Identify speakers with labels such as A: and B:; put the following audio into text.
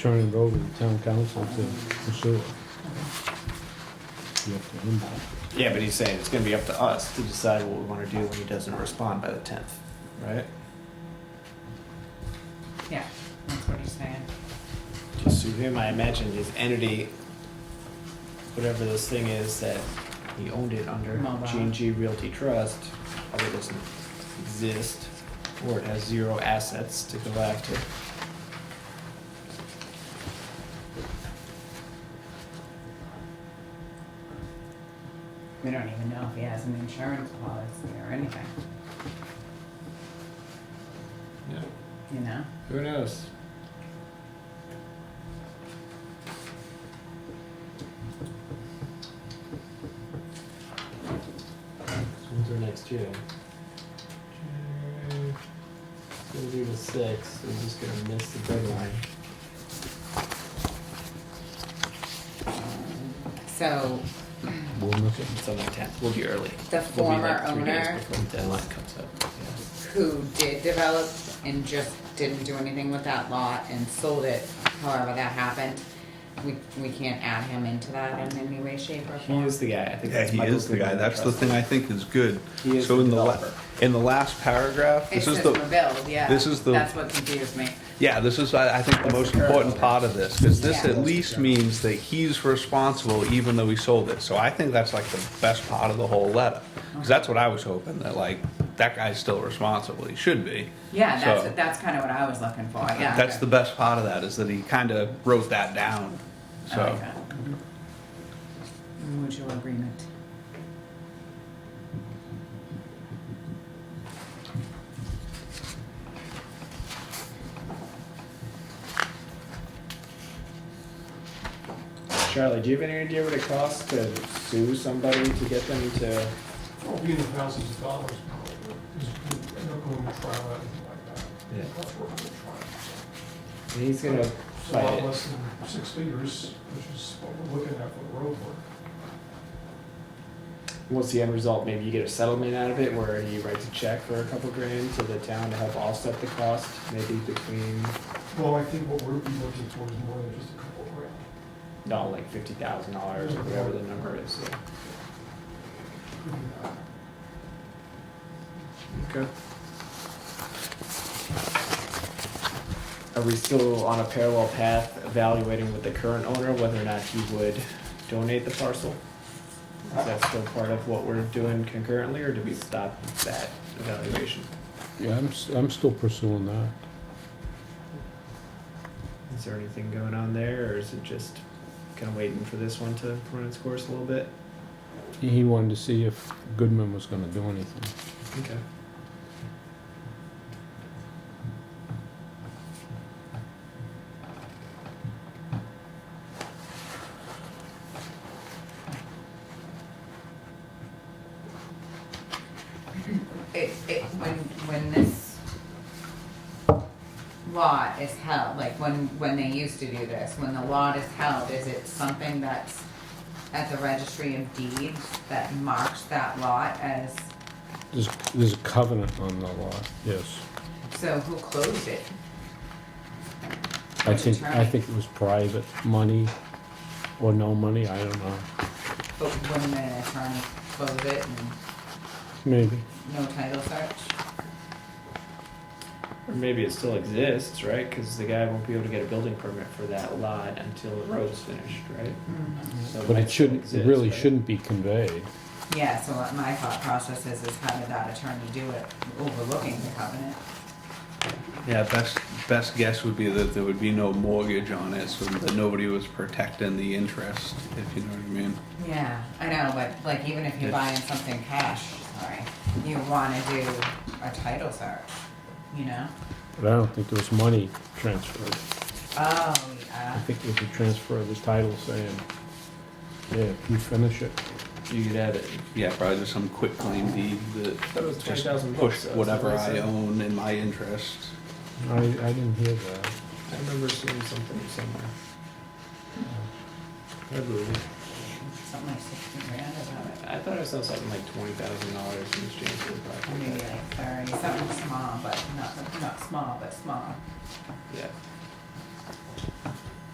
A: turn it over to town council to pursue it. You have to handle it.
B: Yeah, but he's saying it's gonna be up to us to decide what we wanna do when he doesn't respond by the tenth, right?
C: Yeah, that's what he's saying.
B: Just sue him, I imagine his entity, whatever this thing is that he owned it under,
C: Mobile.
B: G and G Realty Trust, probably doesn't exist, or it has zero assets to go after.
C: We don't even know if he has an insurance policy or anything,
B: Yeah,
C: you know?
B: who knows? When's our next year? We'll do the sixth, we're just gonna miss the deadline.
C: So
A: We'll look at
B: It's on the tenth, we'll be early.
C: the
B: We'll be like
C: former
B: three days
C: owner
B: Before the deadline comes up.
C: who did develop and just didn't do anything with that lot and sold it, however that happened, we, we can't add him into that in any way, shape or
B: He
C: form.
B: is the guy, I think
D: Yeah,
B: that's
D: he
B: Michael
D: is the guy.
B: Goodman,
D: That's the
B: trust.
D: thing I think is good.
B: He is
D: So
B: the
D: in the, la-
B: developer.
D: in the last paragraph,
C: It
D: this
C: says
D: is
C: for
D: the,
C: build, yeah.
D: this is the-
C: That's what confused me.
D: yeah, this is, I I think, the
B: That's
D: most
B: the current
D: important
B: one.
D: part of this, because this
C: Yeah.
D: at least means that he's responsible even though he sold it. So I think that's like the best part of the whole letter. Because that's what I was hoping, that like, that guy's still responsible. He should be.
C: Yeah, that's,
D: So-
C: what- that's kind of what I was looking for, yeah.
D: That's the best part of that, is that he kind of wrote that down,
C: I like
D: so.
C: that. Mutual agreement.
B: Charlie, do you have any idea what it costs to sue somebody to get them to?
E: Well, being in thousands of dollars, there's no going to trial or anything like that.
B: Yeah.
E: That's what we're
B: He's gonna
E: trying. It's a
B: fight
E: lot
B: it.
E: less than six figures, which is what we're looking at for the road work.
B: What's the end result? Maybe you get a settlement out of it where he writes a check for a couple grand to the town to help offset the cost, maybe between,
E: Well, I think what we're be looking for is more than just a couple grand.
B: not like fifty thousand dollars or whatever the number is, yeah.
E: Could be that.
B: Okay. Are we still on a parallel path evaluating with the current owner whether or not he would donate the parcel? Is that still part of what we're doing concurrently, or do we stop that evaluation?
A: Yeah, I'm, s- I'm still pursuing that.
B: Is there anything going on there, or is it just kind of waiting for this one to run its course a little bit?
A: He wanted to see if Goodman was gonna do anything.
B: Okay.
C: It, it, when, when this lot is held, like when, when they used to do this, when the lot is held, is it something that's at the registry of deeds that marks that lot as,
A: There's, there's a covenant on the lot, yes.
C: so who closed it?
A: I think, I think it was private money or no money, I don't know,
C: But when the attorney closed it and
A: maybe.
C: no title search?
B: Or maybe it still exists, right? Because the guy won't be able to get a building permit for that lot until the road's finished, right? So
A: But
B: might
A: it
B: still
A: shouldn't, it
B: exist,
A: really
B: right?
A: shouldn't be conveyed.
C: Yeah, so what my thought process is, is how did that attorney do it, overlooking the covenant?
D: Yeah, best, best guess would be that there would be no mortgage on it, so that nobody was protecting the interest, if you know what I mean.
C: Yeah, I know, but like even if you're buying something cash, sorry, you wanna do a title search, you know?
A: But I don't think there was money transferred.
C: Oh,
A: I
C: yeah,
A: think it was a transfer of the title saying, yeah, if you finish it.
B: You could have it.
D: Yeah, probably just some quick claim deed
B: That
D: that
B: was twenty
D: just
B: thousand bucks.
D: pushed
B: so it's
D: whatever
B: nice.
D: I own in my interest.
A: I, I didn't hear that.
B: I remember seeing something somewhere. I believe. it.
C: something like sixty grand or something,
B: I thought I saw something like twenty thousand dollars in exchange for the
C: maybe
B: property.
C: like thirty, something small, but not, not small, but small.
B: Yeah.